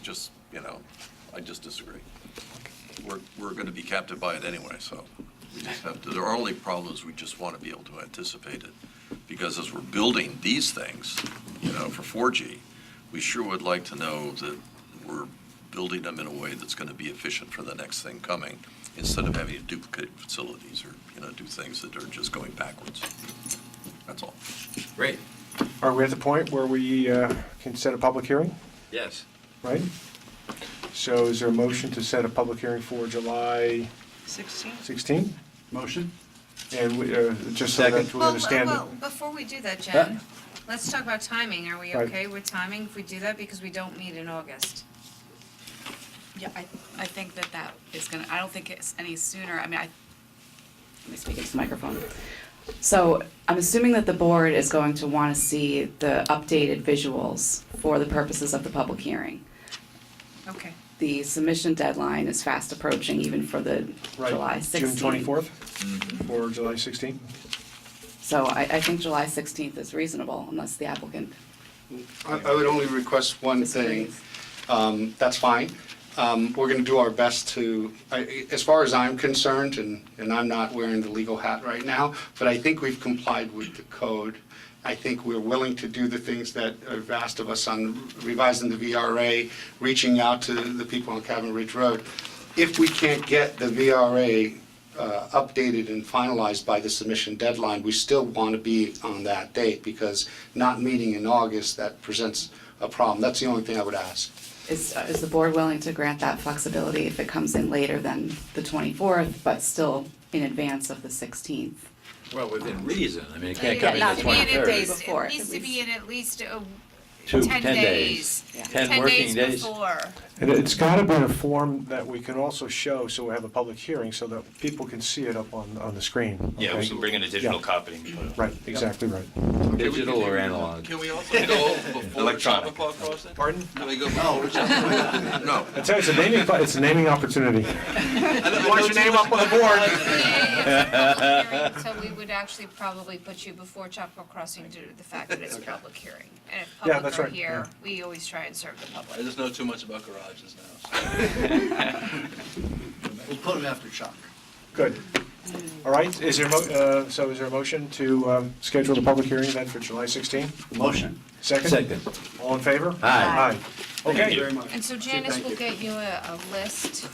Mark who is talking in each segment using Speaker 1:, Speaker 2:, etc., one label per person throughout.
Speaker 1: just, you know, I just disagree. We're, we're going to be captive by it anyway, so we just have to, there are only problems, we just want to be able to anticipate it. Because as we're building these things, you know, for 4G, we sure would like to know that we're building them in a way that's going to be efficient for the next thing coming, instead of having to duplicate facilities or, you know, do things that are just going backwards. That's all.
Speaker 2: Great,
Speaker 3: Are we at the point where we uh, can set a public hearing,
Speaker 2: yes.
Speaker 3: right? So is there a motion to set a public hearing for July
Speaker 4: 16?
Speaker 3: 16?
Speaker 5: Motion?
Speaker 3: And we, uh, just so that
Speaker 5: Second.
Speaker 3: we understand
Speaker 6: Well,
Speaker 3: it.
Speaker 6: before we do that,
Speaker 5: Huh?
Speaker 6: Jen, let's talk about timing. Are we
Speaker 3: Right.
Speaker 6: okay with timing if we do that? Because we don't meet in August.
Speaker 7: Yeah, I, I think that that is gonna, I don't think it's any sooner, I mean, I, let me speak into the microphone. So I'm assuming that the board is going to wanna see the updated visuals for the purposes of the public hearing.
Speaker 6: Okay.
Speaker 7: The submission deadline is fast approaching even for the
Speaker 3: Right,
Speaker 7: July 16th.
Speaker 3: June
Speaker 8: Mm-hmm.
Speaker 3: 24th or July 16th?
Speaker 7: So I, I think July 16th is reasonable unless the applicant
Speaker 5: I I would only request one thing.
Speaker 7: disagrees.
Speaker 5: Um, That's fine. Um, We're going to do our best to, I- as far as I'm concerned, and and I'm not wearing the legal hat right now, but I think we've complied with the code. I think we're willing to do the things that are asked of us on revising the VRA, reaching out to the people on Cabin Ridge Road. If we can't get the VRA uh, updated and finalized by the submission deadline, we still want to be on that date because not meeting in August, that presents a problem. That's the only thing I would ask.
Speaker 7: Is, is the board willing to grant that flexibility if it comes in later than the 24th, but still in advance of the 16th?
Speaker 2: Well, within reason, I mean, it can't
Speaker 6: Yeah,
Speaker 2: come in
Speaker 6: not
Speaker 2: the
Speaker 6: to be in at least-
Speaker 2: 23rd.
Speaker 7: Before,
Speaker 6: It needs
Speaker 7: at
Speaker 6: to be
Speaker 7: least.
Speaker 6: in at least a-
Speaker 2: Two-
Speaker 6: 10 days.
Speaker 7: Yeah.
Speaker 2: 10 working days.
Speaker 6: before.
Speaker 3: And it's got to be in a form that we can also show, so we have a public hearing, so that people can see it up on, on the screen.
Speaker 8: Yeah,
Speaker 3: okay?
Speaker 8: we can bring in a digital
Speaker 3: Yeah.
Speaker 8: copy and put it.
Speaker 3: Right, exactly right.
Speaker 2: Digital or analog?
Speaker 9: Can we also go before twelve
Speaker 8: Electronic.
Speaker 9: o'clock crossing?
Speaker 3: Pardon?
Speaker 9: Can we go before?
Speaker 1: No,
Speaker 3: I tell you, it's a naming, it's a naming opportunity.
Speaker 9: What's your name up on the
Speaker 6: Yeah,
Speaker 9: board?
Speaker 6: yeah, it's a public hearing, So we would actually probably put you before Chapel Crossing due to the fact that it's a public hearing. And if
Speaker 3: Yeah, that's
Speaker 6: public are
Speaker 3: right,
Speaker 6: here, we always try and serve the public.
Speaker 9: I just know too much about garages now. so.
Speaker 5: We'll put it after Chuck.
Speaker 3: Good. All right, is there, a mo- uh, so is there a motion to um, schedule the public hearing then for July 16?
Speaker 5: Motion.
Speaker 3: Second?
Speaker 2: Second.
Speaker 3: All in favor?
Speaker 2: Aye.
Speaker 3: Aye. Okay,
Speaker 5: Very much.
Speaker 6: And so Janice
Speaker 5: Thank
Speaker 6: will
Speaker 5: you.
Speaker 6: get you a, a list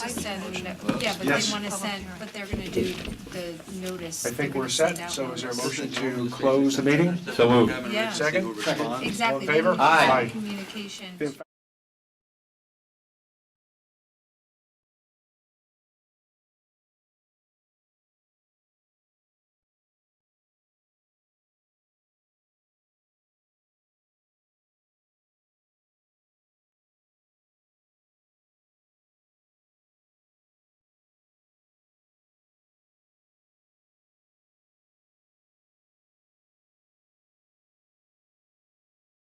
Speaker 6: to send, yeah, but
Speaker 3: Yes.
Speaker 6: they wanna send, but they're gonna do the notice.
Speaker 3: I think
Speaker 6: They're
Speaker 3: we're
Speaker 6: gonna send
Speaker 3: set,
Speaker 6: out
Speaker 3: so is there a
Speaker 6: notice.
Speaker 3: motion to close the meeting?
Speaker 2: So moved.
Speaker 9: Cabinet
Speaker 6: Yeah.
Speaker 9: rates, people
Speaker 3: Second?
Speaker 9: respond.
Speaker 6: Exactly.
Speaker 3: All in favor?
Speaker 6: then we can
Speaker 3: Aye.
Speaker 6: send Communication.
Speaker 3: Aye.